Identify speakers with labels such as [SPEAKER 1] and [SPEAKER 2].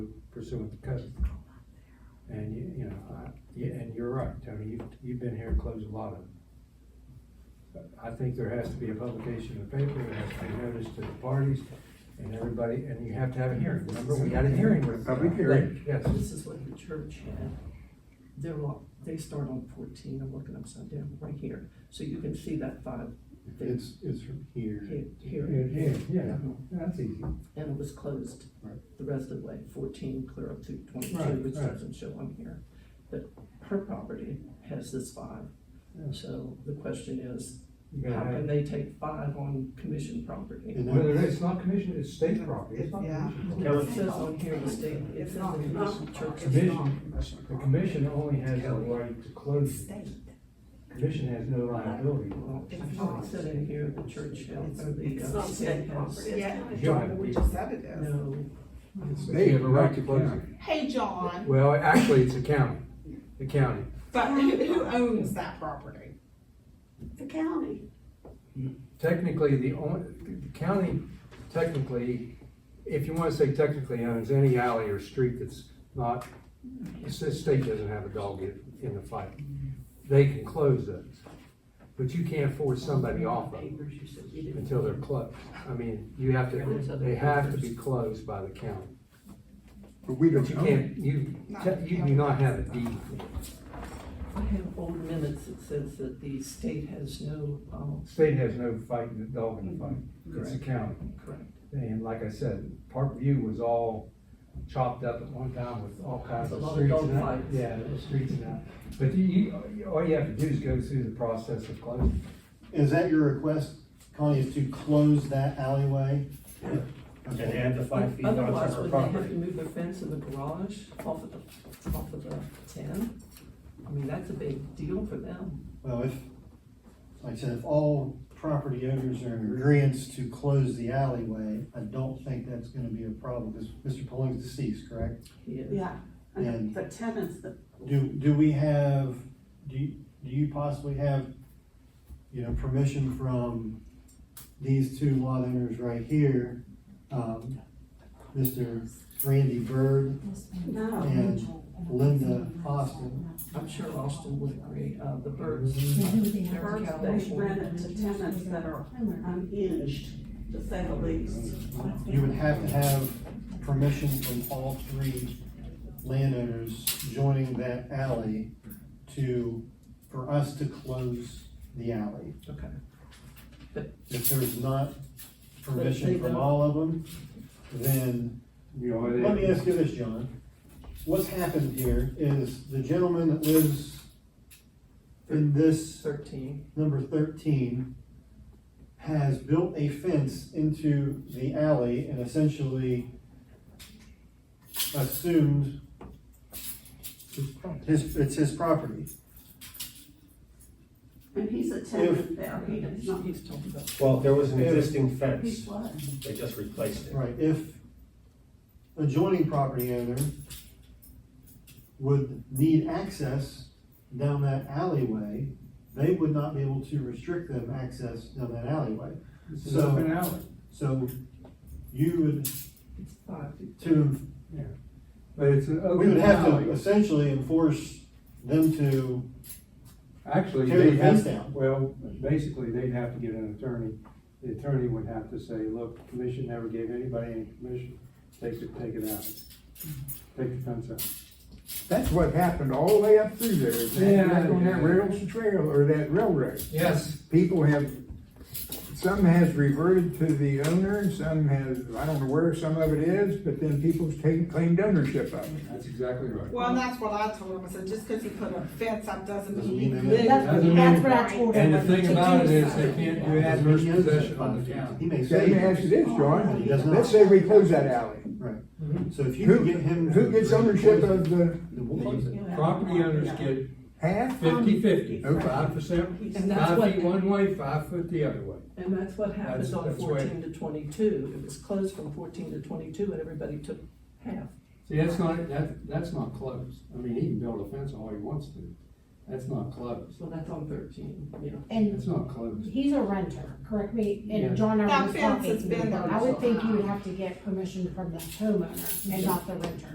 [SPEAKER 1] pursuant to code. And you, you know, I, yeah, and you're right, Tony, you've, you've been here and closed a lot of them. But I think there has to be a publication in the paper, there has to be notice to the parties and everybody, and you have to have a hearing. Remember, we had a hearing with. uh,
[SPEAKER 2] Public hearing.
[SPEAKER 1] Yes,
[SPEAKER 3] This is what the church had. They're lo they start on fourteen, I'm looking upside down, right here, so you can see that five
[SPEAKER 4] It's, it's from here.
[SPEAKER 3] here, here, Uh-huh.
[SPEAKER 1] yeah, yeah, yeah, that's easy.
[SPEAKER 3] and it was closed
[SPEAKER 4] Right.
[SPEAKER 3] the rest of the way, fourteen clear up to
[SPEAKER 1] Right,
[SPEAKER 3] twenty-two, which
[SPEAKER 1] right.
[SPEAKER 3] doesn't show on here. But her property has this five,
[SPEAKER 1] Yeah.
[SPEAKER 3] so the question is,
[SPEAKER 1] You gotta
[SPEAKER 3] how
[SPEAKER 1] have-
[SPEAKER 3] can they take five on commission property?
[SPEAKER 4] And
[SPEAKER 1] Well,
[SPEAKER 4] that-
[SPEAKER 1] it's not commission, it's state property, it's not
[SPEAKER 5] Yeah.
[SPEAKER 1] commission.
[SPEAKER 3] It says on here the state, it
[SPEAKER 5] It's
[SPEAKER 3] says
[SPEAKER 5] not
[SPEAKER 3] the commission
[SPEAKER 5] commission
[SPEAKER 3] church.
[SPEAKER 1] Commission. The
[SPEAKER 5] The
[SPEAKER 1] commission only has the right to close it.
[SPEAKER 5] State.
[SPEAKER 1] Commission has no liability.
[SPEAKER 3] Well, it said in here the church held, or the
[SPEAKER 5] It's
[SPEAKER 3] uh,
[SPEAKER 5] not
[SPEAKER 3] state
[SPEAKER 5] state
[SPEAKER 3] house.
[SPEAKER 5] property. Yeah.
[SPEAKER 1] John,
[SPEAKER 5] We just said it is.
[SPEAKER 3] No,
[SPEAKER 4] They have a right to close it.
[SPEAKER 6] Hey, John,
[SPEAKER 1] Well, actually, it's the county, the county.
[SPEAKER 6] but who, who owns that property?
[SPEAKER 5] The county.
[SPEAKER 1] Technically, the only, the county technically, if you wanna say technically owns any alley or street that's not, the state doesn't have a dog in, in the fight. They can close those, but you can't force somebody off of them until they're closed. I mean, you have to, they have to be closed by the county.
[SPEAKER 4] But we
[SPEAKER 1] But
[SPEAKER 4] don't
[SPEAKER 1] you
[SPEAKER 4] own it.
[SPEAKER 1] can't, you, you do not have a deed.
[SPEAKER 3] I have old minutes that says that the state has no, um,
[SPEAKER 1] State has no fight, in the dog in the fight. It's the county.
[SPEAKER 3] correct.
[SPEAKER 1] And like I said, Parkview was all chopped up at one time with all kinds
[SPEAKER 3] A
[SPEAKER 1] of
[SPEAKER 3] lot of
[SPEAKER 1] streets
[SPEAKER 3] dog
[SPEAKER 1] and that.
[SPEAKER 3] fights.
[SPEAKER 1] Yeah, the streets and that. But you- you, all you have to do is go through the process of closing.
[SPEAKER 7] Is that your request, Connie, is to close that alleyway?
[SPEAKER 2] And add the five feet
[SPEAKER 3] Otherwise,
[SPEAKER 2] onto her
[SPEAKER 3] would they have to
[SPEAKER 2] property.
[SPEAKER 3] move the fence in the garage off of the, off of the ten? I mean, that's a big deal for them.
[SPEAKER 7] Well, if, like I said, if all property owners are in agreeance to close the alleyway, I don't think that's gonna be a problem, because Mr. Pulling's deceased, correct?
[SPEAKER 3] Yeah.
[SPEAKER 5] Yeah, and
[SPEAKER 7] And-
[SPEAKER 5] the tenants, the
[SPEAKER 7] Do, do we have, do, you- do you possibly have, you know, permission from these two lot owners right here? um, Mr. Randy Byrd
[SPEAKER 5] No.
[SPEAKER 7] and Linda Austin.
[SPEAKER 3] I'm sure Austin would agree, uh, the birds.
[SPEAKER 5] Birds they rent it to tenants that are unhinged, to say the least.
[SPEAKER 7] You would have to have permission from all three landowners joining that alley to, for us to close the alley.
[SPEAKER 3] Okay.
[SPEAKER 7] If there's not permission from all of them, then, let me ask you this, John. What's happened here is the gentleman that lives in this
[SPEAKER 3] Thirteen,
[SPEAKER 7] number thirteen has built a fence into the alley and essentially assumed his, it's his property.
[SPEAKER 5] And he's a tenant there, he does not,
[SPEAKER 3] he's talking about,
[SPEAKER 2] Well, there was an
[SPEAKER 7] Yeah.
[SPEAKER 2] existing
[SPEAKER 5] he's
[SPEAKER 2] fence,
[SPEAKER 5] what?
[SPEAKER 2] they just replaced it.
[SPEAKER 7] Right, if adjoining property owner would need access down that alleyway, they would not be able to restrict them access down that alleyway.
[SPEAKER 4] It's
[SPEAKER 7] So-
[SPEAKER 4] an open alley.
[SPEAKER 7] So you would,
[SPEAKER 3] it's five feet.
[SPEAKER 7] to
[SPEAKER 1] But it's an
[SPEAKER 7] We
[SPEAKER 1] open
[SPEAKER 7] would have
[SPEAKER 1] alley.
[SPEAKER 7] to essentially enforce them to,
[SPEAKER 1] Actually,
[SPEAKER 7] Tear the
[SPEAKER 1] they
[SPEAKER 7] fence
[SPEAKER 1] have,
[SPEAKER 7] down.
[SPEAKER 1] well, basically, they'd have to get an attorney. The attorney would have to say, look, the commission never gave anybody any commission, they should take it out. Take the fence out.
[SPEAKER 4] That's what happened all the way up through there. is that-
[SPEAKER 1] Yeah,
[SPEAKER 4] Back on that
[SPEAKER 1] yeah.
[SPEAKER 4] rails trail or that railroad.
[SPEAKER 1] Yes.
[SPEAKER 4] People have, some has reverted to the owner and some has, I don't know where some of it is, but then people's taken, claimed ownership of it.
[SPEAKER 1] That's exactly right.
[SPEAKER 6] Well, and that's what I told him, I said, just because he put a fence up doesn't
[SPEAKER 7] Doesn't
[SPEAKER 6] mean.
[SPEAKER 7] mean
[SPEAKER 6] you
[SPEAKER 7] that-
[SPEAKER 6] live
[SPEAKER 1] Doesn't
[SPEAKER 6] there."
[SPEAKER 1] mean-
[SPEAKER 6] That's right.
[SPEAKER 1] And the thing about it is, they can't do adverse
[SPEAKER 7] he owns that
[SPEAKER 1] possession on the
[SPEAKER 7] property.
[SPEAKER 1] county.
[SPEAKER 7] He may
[SPEAKER 4] So let me
[SPEAKER 7] say,
[SPEAKER 4] ask you this, John,
[SPEAKER 5] Oh,
[SPEAKER 7] He does not.
[SPEAKER 4] let's say we close that alley.
[SPEAKER 7] so if you
[SPEAKER 4] Who,
[SPEAKER 7] could get him.
[SPEAKER 4] who gets ownership of the
[SPEAKER 7] The wolves.
[SPEAKER 1] Property owners get
[SPEAKER 4] half?
[SPEAKER 1] fifty-fifty,
[SPEAKER 4] Okay.
[SPEAKER 1] five percent,
[SPEAKER 3] And that's
[SPEAKER 1] five
[SPEAKER 3] what-
[SPEAKER 1] feet one way, five foot the other way.
[SPEAKER 3] And that's what happened
[SPEAKER 1] That's-
[SPEAKER 3] on
[SPEAKER 1] that's why-
[SPEAKER 3] fourteen to twenty-two, it was closed from fourteen to twenty-two, and everybody took half.
[SPEAKER 1] See, that's not, that, that's not closed. I mean, he can build a fence all he wants to. That's not closed.
[SPEAKER 3] So that's on thirteen, yeah.
[SPEAKER 8] And
[SPEAKER 1] That's not closed.
[SPEAKER 8] he's a renter, correct me,
[SPEAKER 1] Yeah.
[SPEAKER 8] and John and I
[SPEAKER 6] That
[SPEAKER 8] were
[SPEAKER 6] fence has
[SPEAKER 8] talking.
[SPEAKER 6] been there
[SPEAKER 8] I would
[SPEAKER 6] so
[SPEAKER 8] think you would
[SPEAKER 6] long.
[SPEAKER 8] have to get permission from the homeowner and not the renter.